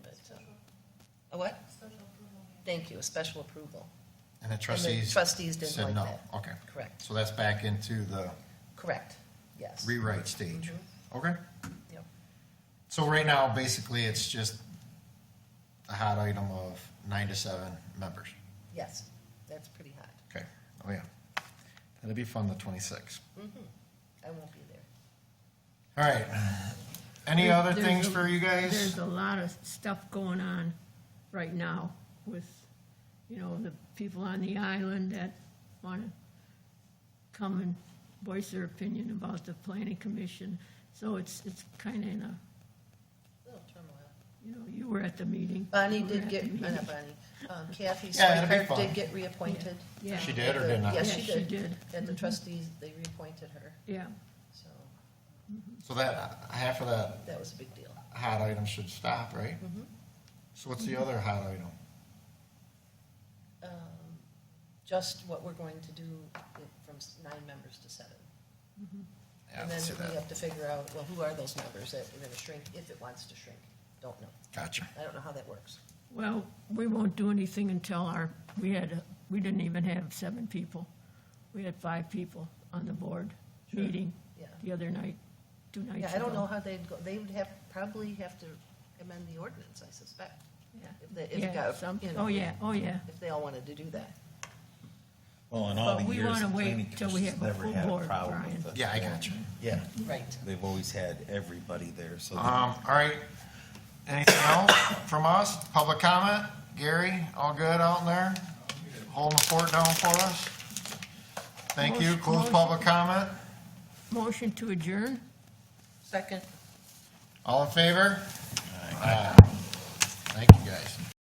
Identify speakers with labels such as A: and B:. A: uh, A what? Thank you, a special approval.
B: And the
A: And the
B: trustees
A: Trustees didn't
B: said
A: like
B: no.
A: that.
B: Okay.
A: Correct,
B: So that's back into the
A: correct, yes.
B: rewrite stage.
A: Mm-hmm.
B: Okay.
A: Yep.
B: So right now, basically, it's just a hot item of nine to seven members.
A: Yes, that's pretty hot.
B: Okay. Oh, yeah. That'll be fun, the twenty-sixth.
A: I won't be there.
B: All right. Any
C: There-
B: other
C: there's
B: things
C: a-
B: for you guys?
C: There's a lot of stuff going on right now with, you know, the people on the island that want to come and voice their opinion about the planning commission. So it's, it's kind of in a,
A: Little turmoil.
C: you know, you were at the meeting.
A: Bonnie
C: You were
A: did
C: at
A: get,
C: the
A: uh, not
C: meeting.
A: Bonnie, um, Kathy
B: Yeah, it'll be
A: Swihart
B: fun.
A: did get reappointed.
C: Yeah.
B: She did or did not?
A: Yes,
C: Yeah,
A: she
C: she
A: did.
C: did.
A: And the
C: Mhm.
A: trustees, they reappointed her,
C: Yeah,
A: so
B: So that, half of that
A: that was a big deal.
B: hot item should stop, right?
A: Mm-hmm.
B: So what's the other hot item?
A: Um, Just what we're going to do with- from s- nine members to seven.
B: Yeah,
A: And
B: let's do
A: then we
B: that.
A: have to figure out, well, who are those members that we're gonna shrink, if it wants to shrink? Don't know.
B: Gotcha.
A: I don't know how that works.
C: well, we won't do anything until our, we had, a- we didn't even have seven people. We had five people on the board meeting
A: Yeah.
C: the other night, two nights ago.
A: Yeah, I don't know how they'd go, they would have, probably have to amend the ordinance, I suspect.
C: Yeah.
A: If they, if, it
C: Yeah,
A: got-
C: some,
A: you know,
C: oh, yeah, oh, yeah.
A: If they all wanted to do that.
D: Well, in all
C: But
D: the
C: we
D: years,
C: want
D: the
C: to
D: planning
C: wait till we
D: commission's
C: have a
D: never
C: full
D: had a
C: board,
D: problem with
C: Brian.
D: it.
B: Yeah, I got you.
D: Yeah,
A: Right.
D: they've always had everybody there, so.
B: Um, all right. Anything else from us? Public comment? Gary, all good out there? Holding the fort down for us? Thank you.
C: Motion-
B: Close
C: motion.
B: public comment.
C: Motion to adjourn?
A: Second.
B: All in favor? Aye. Thank you, guys.